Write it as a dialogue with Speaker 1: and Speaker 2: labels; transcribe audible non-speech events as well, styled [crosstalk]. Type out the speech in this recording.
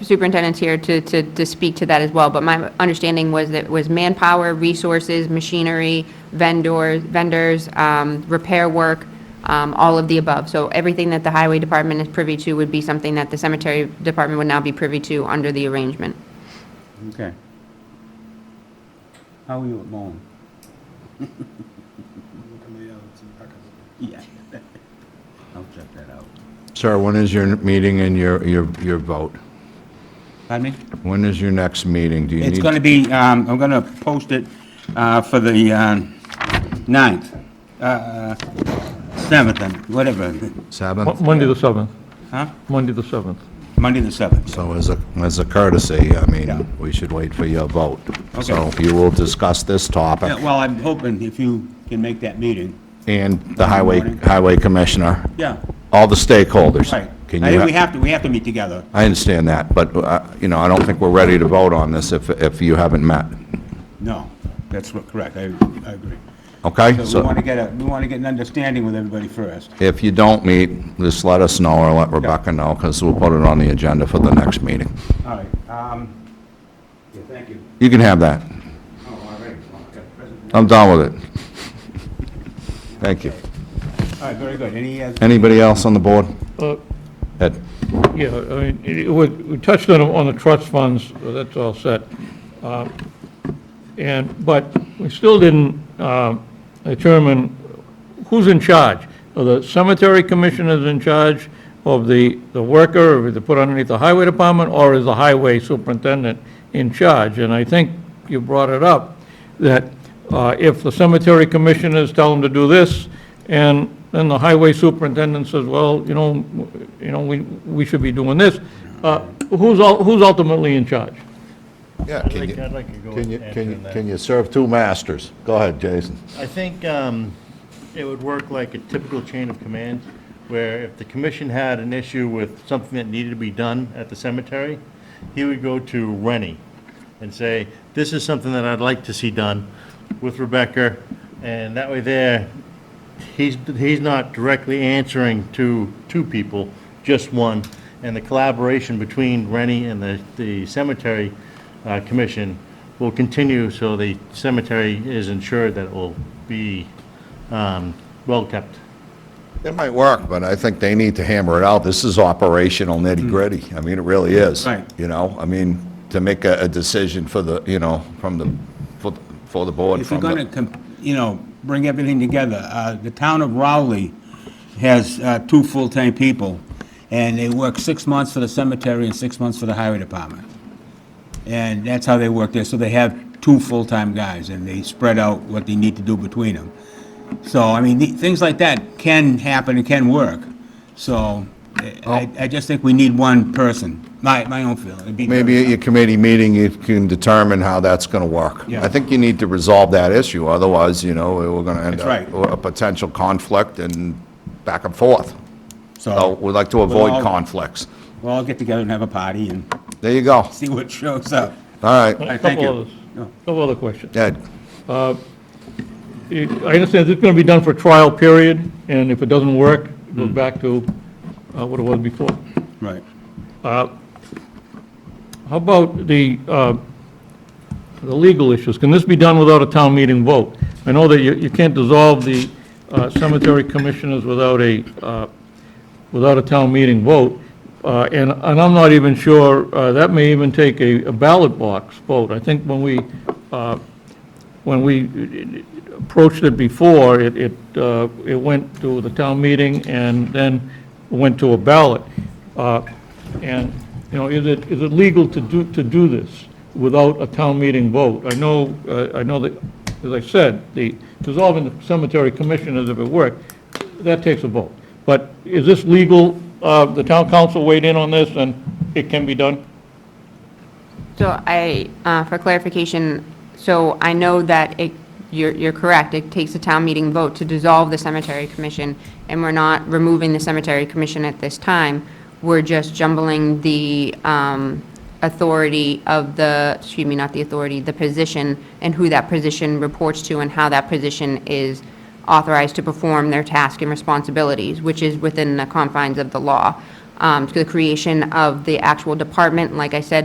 Speaker 1: superintendent's here to, to, to speak to that as well, but my understanding was that it was manpower, resources, machinery, vendors, vendors, um, repair work, um, all of the above. So everything that the highway department is privy to would be something that the cemetery department would now be privy to under the arrangement.
Speaker 2: Okay. How are you at mowing? [laughs] Yeah. I'll check that out.
Speaker 3: Sir, when is your meeting and your, your, your vote?
Speaker 2: Pardon me?
Speaker 3: When is your next meeting? Do you
Speaker 2: It's
Speaker 3: need?
Speaker 2: going to be, um, I'm going to post it uh, for the um, 9th, uh, 7th, and whatever,
Speaker 3: Seventh?
Speaker 4: Mo- Monday the 7th,
Speaker 2: huh?
Speaker 4: Monday the 7th.
Speaker 2: Monday the 7th.
Speaker 3: So as a, as a courtesy, I
Speaker 2: Yeah.
Speaker 3: mean, we should wait for your vote. So
Speaker 2: Okay.
Speaker 3: you will discuss this
Speaker 2: Yeah,
Speaker 3: topic
Speaker 2: Well, I'm hoping if you can make that meeting.
Speaker 3: and the highway,
Speaker 2: Morning.
Speaker 3: highway commissioner,
Speaker 2: Yeah,
Speaker 3: all the stakeholders.
Speaker 2: right.
Speaker 3: Can
Speaker 2: I
Speaker 3: you,
Speaker 2: think we
Speaker 3: ha-
Speaker 2: have to, we have to meet together.
Speaker 3: I understand that, but, uh, you know, I don't think we're ready to vote on this if, if you haven't met.
Speaker 2: No, that's what- correct, I I agree.
Speaker 3: Okay?
Speaker 2: So we
Speaker 3: So
Speaker 2: want to get a, we want to get an understanding with everybody first.
Speaker 3: if you don't meet, just let us know or let Rebecca know because we'll put it on the agenda for the next meeting.
Speaker 2: All right. um, Yeah, thank you.
Speaker 3: You can have that.
Speaker 2: Oh, all right. Well, I've got a present.
Speaker 3: I'm done with it. Thank you.
Speaker 2: All right, very good. Any, uh,
Speaker 3: Anybody else on the board?
Speaker 4: Uh,
Speaker 3: Ed?
Speaker 4: Yeah, I mean, it- we we touched on, on the trust funds, so that's all set. Uh, And, but we still didn't um, determine who's in charge. Are the cemetery commissioners in charge of the, the worker, or is it put underneath the highway department, or is the highway superintendent in charge? And I think you brought it up, that uh, if the cemetery commissioners tell them to do this, and then the highway superintendent says, well, you know, w- you know, we, we should be doing this, uh, who's, ul- who's ultimately in charge?
Speaker 3: Yeah,
Speaker 5: I'd like, I'd like to go and answer that.
Speaker 3: you serve two masters? Go ahead, Jason.
Speaker 5: I think um, it would work like a typical chain of command, where if the commission had an issue with something that needed to be done at the cemetery, he would go to Rennie and say, this is something that I'd like to see done with Rebecca, and that way there, he's, he's not directly answering to two people, just one. And the collaboration between Rennie and the, the cemetery uh, commission will continue, so the cemetery is ensured that it will be um, well-kept.
Speaker 3: It might work, but I think they need to hammer it out. This is operational nitty-gritty. I mean, it really is.
Speaker 2: Right.
Speaker 3: You know, I mean, to make a, a decision for the, you know, from the, for, the- for the board,
Speaker 2: If you're
Speaker 3: from
Speaker 2: going
Speaker 3: the,
Speaker 2: to, you know, bring everything together, uh, the town of Rowley has uh, two full-time people, and they work six months for the cemetery and six months for the highway department. And that's how they work there, so they have two full-time guys, and they spread out what they need to do between them. So, I mean, the- things like that can happen and can work, so eh, I I just think we need one person, my my own feeling. It'd be-
Speaker 3: maybe at your committee meeting, you can determine how that's going to work.
Speaker 2: Yeah.
Speaker 3: I think you need to resolve that issue, otherwise, you know, we're going to end
Speaker 2: That's
Speaker 3: up
Speaker 2: right.
Speaker 3: with a potential conflict and back and forth. So we'd like to
Speaker 2: We'll
Speaker 3: avoid
Speaker 2: all-
Speaker 3: conflicts.
Speaker 2: We'll all get together and have a party and [laughs]
Speaker 3: There you go. All
Speaker 2: see what shows up.
Speaker 3: right.
Speaker 4: A
Speaker 2: thank
Speaker 4: couple
Speaker 2: you.
Speaker 4: others.
Speaker 2: No.
Speaker 4: Couple other questions.
Speaker 3: Ed,
Speaker 4: It- I understand this is going to be done for trial period, and if it doesn't work, it goes back to uh, what it was before.
Speaker 2: Right.
Speaker 4: How about the, uh, the legal issues? Can this be done without a town meeting vote? I know that you, you can't dissolve the uh, cemetery commissioners without a, uh, without a town meeting vote, uh, and, and I'm not even sure, uh, that may even take a a ballot box vote. I think when we, uh, when we approached it before, it, it, uh, it went to the town meeting and then went to a ballot. Uh, And, you know, is it, is it legal to do, to do this without a town meeting vote? I know, uh, I know that, as I said, the dissolving the cemetery commissioners, if it worked, that takes a vote. But is this legal? Uh, The town council weighed in on this and it can be done?
Speaker 1: So I, uh, for clarification, so I know that it, you're, you're correct, it takes a town meeting vote to dissolve the cemetery commission, and we're not removing the cemetery commission at this time. We're just jumbling the um, authority of the, excuse me, not the authority, the position, and who that position reports to, and how that position is authorized to perform their task and responsibilities, which is within the confines of the law. Um, um, to the creation of the actual department. Like I said,